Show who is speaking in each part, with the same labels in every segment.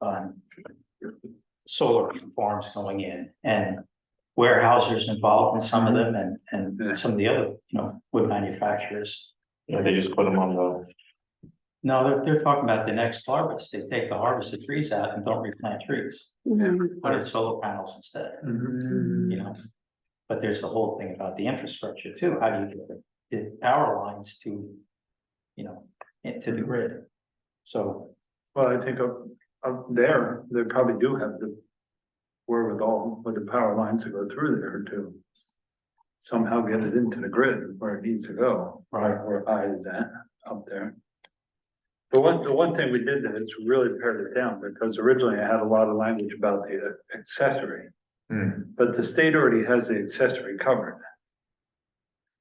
Speaker 1: um, solar farms going in and warehouses involved in some of them and,
Speaker 2: Yeah.
Speaker 1: and some of the other, you know, wood manufacturers.
Speaker 3: Yeah, they just put them on the,
Speaker 1: No, they're, they're talking about the next harvest. They take the harvest of trees out and don't replant trees. Put in solar panels instead, you know? But there's the whole thing about the infrastructure too. How do you get the, the power lines to, you know, into the grid? So,
Speaker 2: Well, I think up, up there, they probably do have the wherewithal with the power lines to go through there to somehow get it into the grid where it needs to go,
Speaker 1: right,
Speaker 2: where I is at, up there. The one, the one thing we did that it's really pared it down, because originally I had a lot of language about the accessory, but the state already has the accessory covered.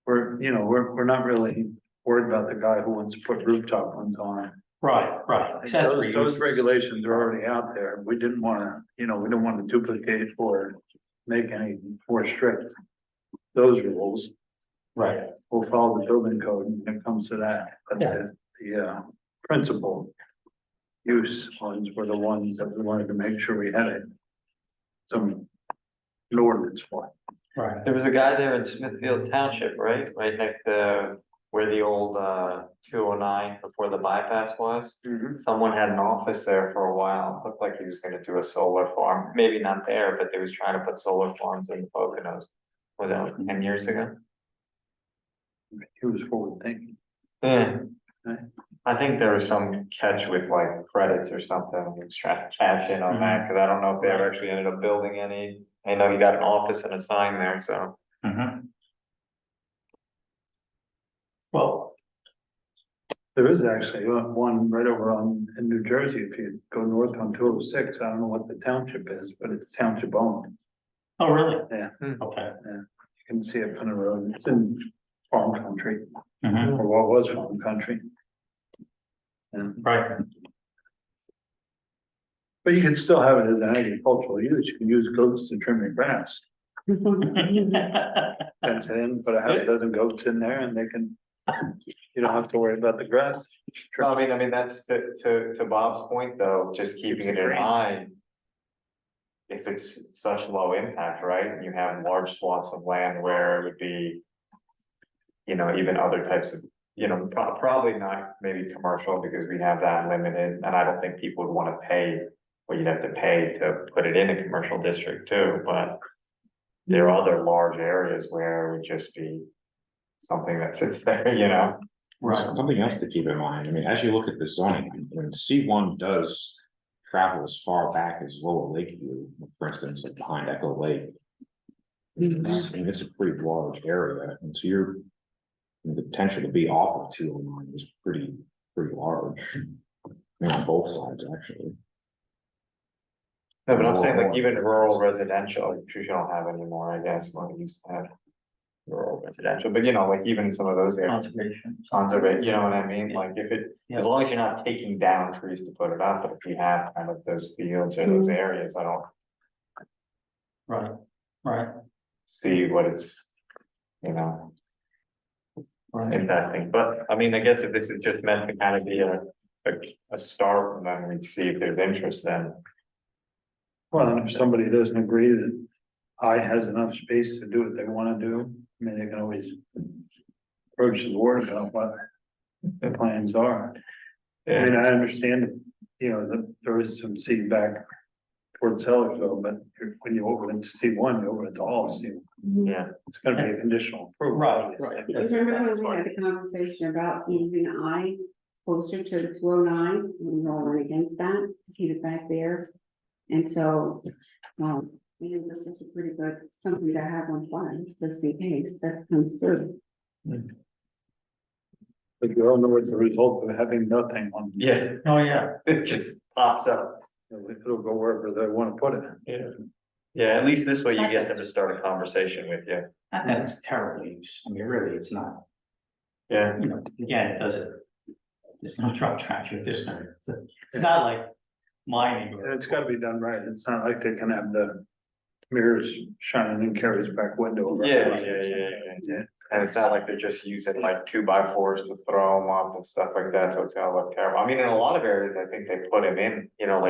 Speaker 2: We're, you know, we're, we're not really worried about the guy who wants to put rooftop ones on.
Speaker 1: right, right. Accessory
Speaker 2: Those, those
Speaker 1: use.
Speaker 2: regulations are already out there. We didn't wanna, you know, we didn't wanna duplicate or make any more strict. Those rules,
Speaker 1: right.
Speaker 2: we'll follow the building code when it comes to that, but the, the, uh, principal. Use ones were the ones that we wanted to make sure we had it. Some. An ordinance for.
Speaker 1: Right,
Speaker 3: there was a guy there in Smithfield Township, right? Right next to where the old uh two oh nine before the bypass was. Someone had an office there for a while. Looked like he was gonna do a solar farm, maybe not there, but they was trying to put solar farms in the Poconos. Was that like ten years ago?
Speaker 2: He was forward thinking.
Speaker 3: Yeah.
Speaker 2: Right.
Speaker 3: I think there was some catch with like credits or something, he was trying to cash in on that, cause I don't know if they ever actually ended up building any. I know he got an office and a sign there, so.
Speaker 1: Mhm. Well,
Speaker 2: There is actually one one right over on, in New Jersey, if you go north on two oh six, I don't know what the township is, but it's township owned.
Speaker 1: oh, really?
Speaker 2: Yeah.
Speaker 1: Okay.
Speaker 2: You can see it from the road, it's in farm country,
Speaker 1: Mhm.
Speaker 2: or what was farm country. Yeah,
Speaker 1: Right,
Speaker 2: but you can still have it as an agricultural use, you can use goats to trim your grass. That's in, but I have a dozen goats in there and they can, you don't have to worry about the grass.
Speaker 3: No, I mean, I mean, that's to, to, to Bob's point though, just keeping it in mind. If it's such low impact, right, you have large swaths of land where it would be. You know, even other types of, you know, pro- probably not maybe commercial because we have that limited, and I don't think people would wanna pay. What you'd have to pay to put it in a commercial district too, but. There are other large areas where it would just be. Something that sits there, you know?
Speaker 1: right.
Speaker 4: Something else to keep in mind, I mean, as you look at the zoning, when C one does travel as far back as Lower Lakeview, for instance, like behind Echo Lake. It's- I mean, it's a pretty large area, and so you're, the potential to be off of two oh nine is pretty, pretty large. I mean, on both sides, actually.
Speaker 3: No, but I'm
Speaker 4: Rural
Speaker 3: saying like
Speaker 4: or-
Speaker 3: even rural residential, like you don't have anymore, I guess, what we used to have. Rural residential, but you know, like even some of those areas,
Speaker 1: Conservation.
Speaker 3: tons of it, you know what I mean, like if it,
Speaker 1: Yeah.
Speaker 3: as long as you're not taking down trees to put it up, but if you have kind of those fields or those areas, I don't
Speaker 1: Right, right,
Speaker 3: see what it's. You know,
Speaker 1: right.
Speaker 3: impacting, but I mean, I guess if this is just meant to kind of be a, a, a start, and then we'd see if there's interest then.
Speaker 2: Well, and if somebody doesn't agree that I has enough space to do what they wanna do, I mean, they can always. Approach the board about what the plans are. I mean, I understand, you know, that there is some feedback towards Sellersville, but when you open it to C one, you open it to all C.
Speaker 3: Yeah.
Speaker 2: It's gonna be a conditional approval.
Speaker 1: Right, right.
Speaker 5: Mm-hmm.
Speaker 2: obviously.
Speaker 1: That's-
Speaker 5: Remember
Speaker 1: that's
Speaker 5: when we
Speaker 1: right.
Speaker 5: had the conversation about moving I closer to the two oh nine, we all went against that, to keep it back there. And so, um, I think this is a pretty good, something to have on file, just in case that comes through.
Speaker 2: But you all know what the result of having nothing on.
Speaker 3: Yeah,
Speaker 1: Oh, yeah,
Speaker 3: it just pops up.
Speaker 2: It'll go wherever they wanna put it.
Speaker 3: Yeah. Yeah, at least this way you get them to start a conversation with you.
Speaker 1: and that's terrible use. I mean, really, it's not,
Speaker 3: Yeah.
Speaker 1: you know, again, it doesn't. There's no truck tractor, there's no, it's- it's not like mining
Speaker 2: And
Speaker 1: or.
Speaker 2: it's gotta be done right, it's not like they can have the mirrors shining in Carrie's back window. yeah.
Speaker 3: And it's not like they're just using like two by fours to throw them up and stuff like that, so it's gonna look terrible. I mean, in a lot of areas, I think they put them in, you know, like